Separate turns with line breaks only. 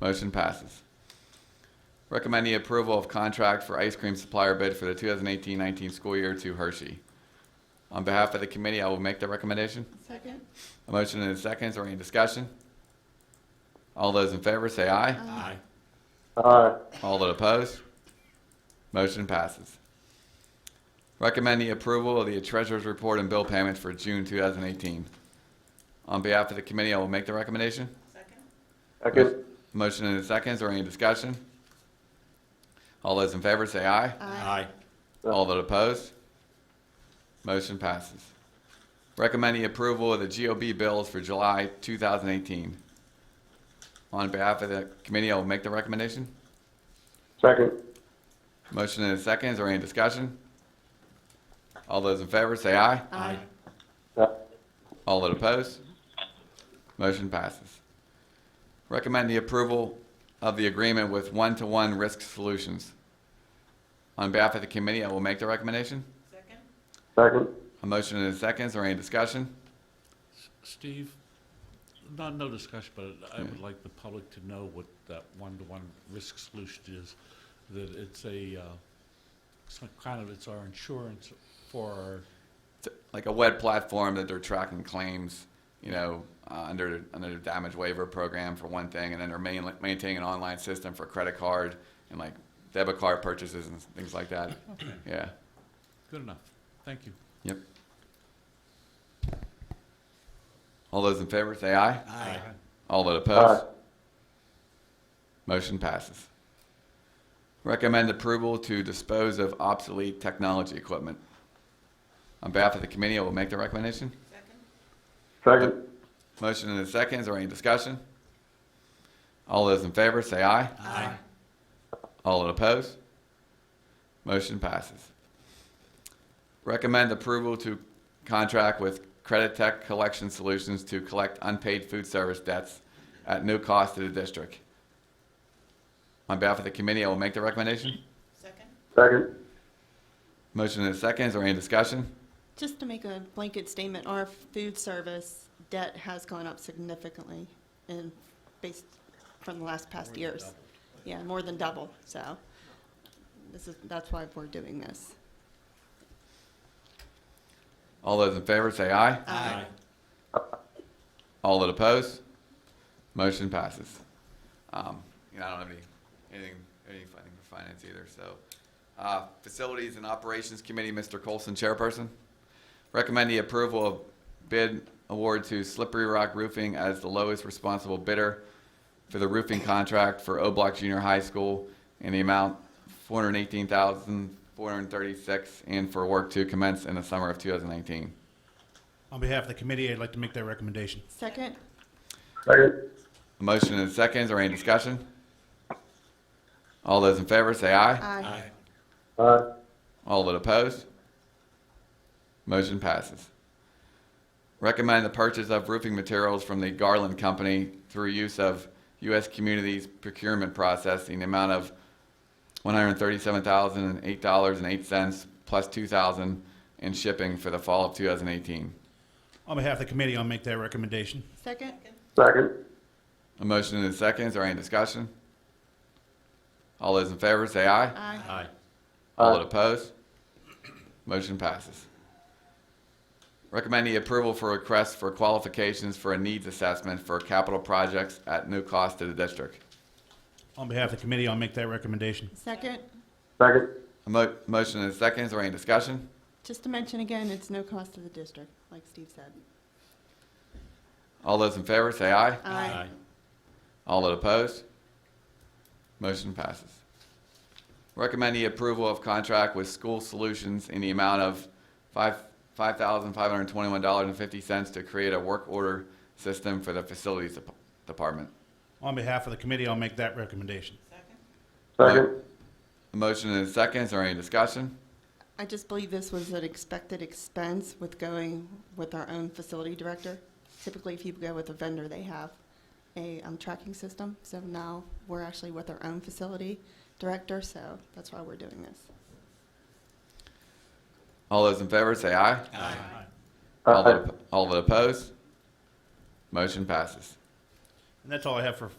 Motion passes. Recommend the approval of contract for ice cream supplier bid for the 2018-19 school year to Hershey. On behalf of the committee, I will make the recommendation.
Second?
A motion and a second. Is there any discussion? All those in favor say aye.
Aye.
aye,
All that oppose? Motion passes. Recommend the approval of the treasurer's report and bill payments for June 2018. On behalf of the committee, I will make the recommendation.
Second?
second,
Motion and a second. Is there any discussion? All those in favor say aye.
Aye.
All that opposed? Motion passes. Recommend the approval of the GOB bills for July 2018. On behalf of the committee, I will make the recommendation.
second,
Motion and a second. Is there any discussion? All those in favor say aye.
Aye.
aye,
All that oppose? Motion passes. Recommend the approval of the agreement with One-to-One Risk Solutions. On behalf of the committee, I will make the recommendation.
Second?
second,
A motion and a second. Is there any discussion?
Steve, not, no discussion, but I would like the public to know what that one-to-one risk solution is. That it's a, uh, some kind of, it's our insurance for, our-
It's like a web platform that they're tracking claims, you know, uh, under under the damage waiver program for one thing, and then they're main, maintaining an online system for credit card and like debit card purchases and things like that.
okay,
Yeah.
good enough. Thank you.
Yep. All those in favor say aye.
Aye.
All that oppose?
aye,
Motion passes. Recommend approval to dispose of obsolete technology equipment. On behalf of the committee, I will make the recommendation.
Second?
second,
Motion and a second. Is there any discussion? All those in favor say aye.
Aye.
All that oppose? Motion passes. Recommend approval to contract with Credit Tech Collection Solutions to collect unpaid food service debts at no cost to the district. On behalf of the committee, I will make the recommendation.
Second?
second,
Motion and a second. Is there any discussion?
Just to make a blanket statement, our food service debt has gone up significantly in, based from the last past years. Yeah, more than double, so this is, that's why we're doing this.
All those in favor say aye.
Aye.
All that oppose? Motion passes. Um, you know, I don't have any, anything, anything for finance either, so. Uh, Facilities and Operations Committee, Mr. Colson, chairperson. Recommend the approval of bid award to Slippery Rock Roofing as the lowest responsible bidder for the roofing contract for O Block Junior High School in the amount four hundred and eighteen thousand, four hundred and thirty-six, and for work to commence in the summer of two thousand nineteen.
On behalf of the committee, I'd like to make that recommendation.
Second?
second,
A motion and a second. Is there any discussion? All those in favor say aye.
Aye.
aye,
All that opposed? Motion passes. Recommend the purchase of roofing materials from the Garland Company through use of U.S. Communities procurement process in the amount of $137,008.08 plus 2000 in shipping for the fall of 2018.
On behalf of the committee, I'll make that recommendation.
Second?
Second?
second,
A motion and a second. Is there any discussion? All those in favor say aye.
Aye.
Aye.
All
Aye.
that oppose? Uh, Motion passes. Recommend the approval for request for qualifications for a needs assessment for capital projects at no cost to the district.
On behalf of the committee, I'll make that recommendation.
Second?
second,
A mo- motion and a second, is there any discussion?
Just to mention again, it's no cost to the district, like Steve said.
All those in favor say aye.
Aye.
All that opposed? Motion passes. Recommend the approval of contract with School Solutions in the amount of five, five thousand five hundred twenty-one dollars and fifty cents to create a work order system for the facilities dep- department.
On behalf of the committee, I'll make that recommendation.
Second?
second,
A motion and a second, is there any discussion?
I just believe this was an expected expense with going with our own facility director. Typically, if you go with a vendor, they have a um, tracking system. So now we're actually with our own facility director, so that's why we're doing this.
All those in favor say aye.
Aye.
All
aye.
that, all that opposed? Motion passes.
And that's all I have for